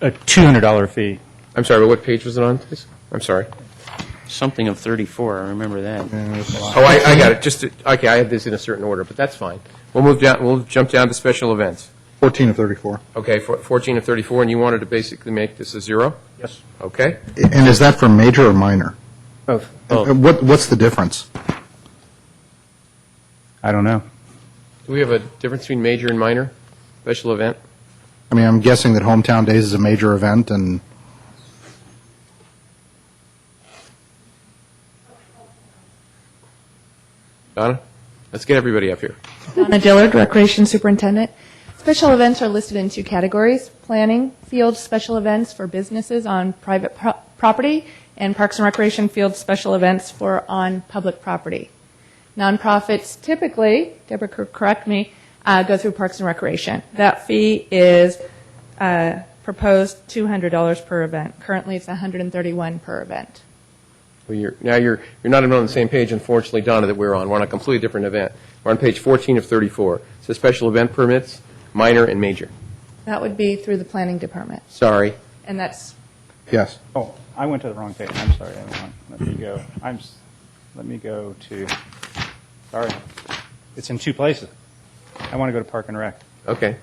a $200 fee. I'm sorry, but what page was it on, please? I'm sorry. Something of 34, I remember that. Oh, I, I got it, just, to- okay, I have this in a certain order, but that's fine. We'll move down, we'll jump down to special events. 14 of 34. Okay, four- 14 of 34, and you wanted to basically make this a zero? Yes. Okay, And is that for major or minor? Both. Uh, What, what's the difference? I don't know. do we have a difference between major and minor, special event? I mean, I'm guessing that Hometown Days is a major event, and Donna, let's get everybody up here. Donna Dillard, Recreation Superintendent. Special events are listed in two categories, planning, field special events for businesses on private pro- property, and Parks and Recreation field special events for on public property. Nonprofits typically, Deborah could correct me, uh, go through Parks and Recreation. That fee is uh, proposed $200 per event. Currently, it's $131 per event. Well, you're, now you're, you're not even on the same page, unfortunately, Donna, that we're on. We're on a completely different event. We're on page 14 of 34. It says special event permits, minor and major. That would be through the Planning Department, Sorry. and that's yes. Oh, I went to the wrong page. I'm sorry, everyone. Let me go. I'm. s- Let me go to. Sorry, it's in two places. I want to go to Park and Rec. Okay.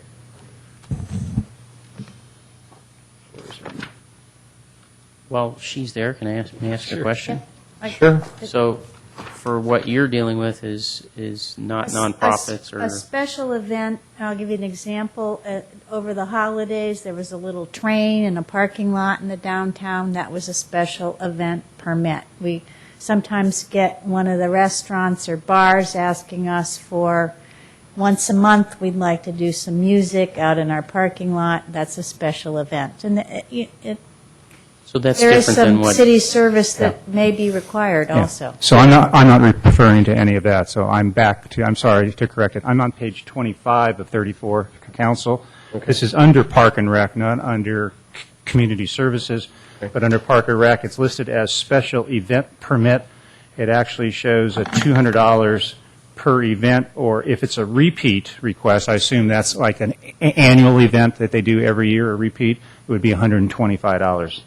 Well, she's there, can I ask, may I ask a question? Sure. So, for what you're dealing with is, is not s- nonprofits a- or, A special event, I'll give you an example. Uh, Over the holidays, there was a little train in a parking lot in the downtown. That was a special event permit. We sometimes get one of the restaurants or bars asking us for, once a month, we'd like to do some music out in our parking lot. That's a special event. And it- it- it- so that's there is different than some what? city service that may be required Yeah. also. So I'm not, I'm not referring to any of that, so I'm back to, I'm sorry to correct it. I'm on page 25 of 34, c- council. This is under Park and Rec, not under c- Community Services, but under Park and Rec, it's listed as special event permit. It actually shows a $200 per event, or if it's a repeat request, I assume that's like an a- annual event that they do every year, a repeat, it would be $125.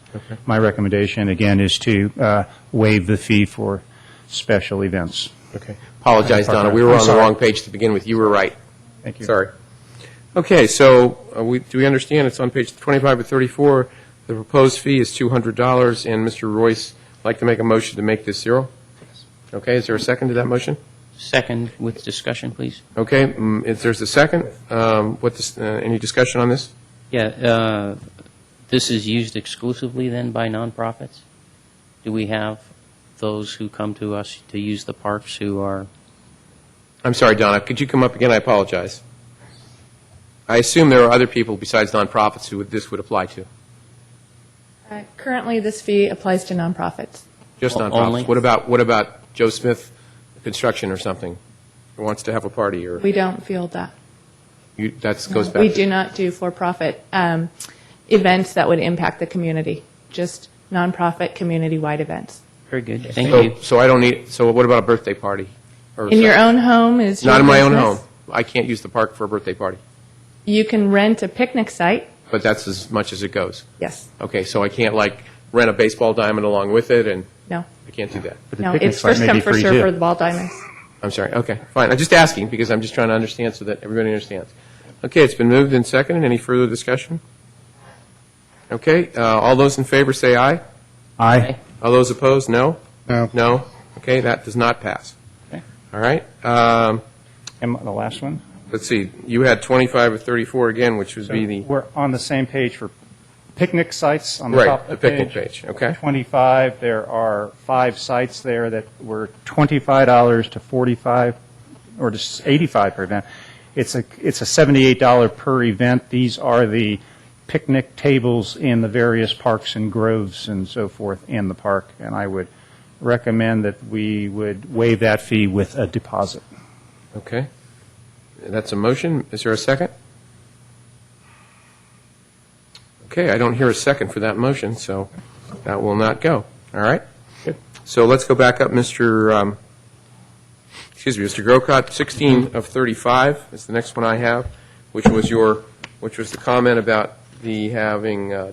My recommendation, again, is to uh, waive the fee for special events. Okay. Apologize, Donna. We were I'm on the sorry. wrong page to begin with. You were right. Thank you. Sorry. Okay, so uh, we, do we understand it's on page 25 or 34? The proposed fee is $200, and Mr. Royce would like to make a motion to make this zero? Okay, is there a second to that motion? Second, with discussion, please. Okay, mm, if there's a second, um, what, dis- uh, any discussion on this? Yeah, uh, this is used exclusively then by nonprofits? Do we have those who come to us to use the parks who are, I'm sorry, Donna, could you come up again? I apologize. I assume there are other people besides nonprofits who would- this would apply to, Uh, Currently, this fee applies to nonprofits. just O- only? nonprofits. What about, what about Joe Smith Construction or something, who wants to have a party, or, We don't field that. that goes back? We to- do not do for-profit um, events that would impact the community, just nonprofit, community-wide events. very good, thank So- you. So I don't need, so what about a birthday party? Or In your something? own home is your Not in my own business. home. I can't use the park for a birthday party, You can rent a picnic site, but that's as much as it goes. yes, Okay, so I can't like rent a baseball diamond along with it, and no, I can't do that. But the no, picnic it's site first may come, be first free, served too. for the ball diamonds. I'm sorry, okay, fine. I'm just asking because I'm just trying to understand so that everybody understands. Okay, it's been moved and seconded. Any further discussion? Okay, uh, all those in favor say aye. Aye. All those opposed, no? No. No? Okay, that does not pass. Okay. All right, um, Am I the last one? let's see, you had 25 or 34 again, which would So be the... We're on the same page for picnic sites on the Right, top of the the page. picnic page, okay. 25, there are five sites there that were $25 to 45, or just 85 per event. It's a, it's a $78 per event. These are the picnic tables in the various parks and groves and so forth in the park, and I would recommend that we would waive that fee with a deposit. Okay. That's a motion. Is there a second? Okay, I don't hear a second for that motion, so that will not go. All right? So let's go back up, Mr., um, excuse me, Mr. Grocott, 16 of 35 is the next one I have, which was your, which was the comment about the having uh,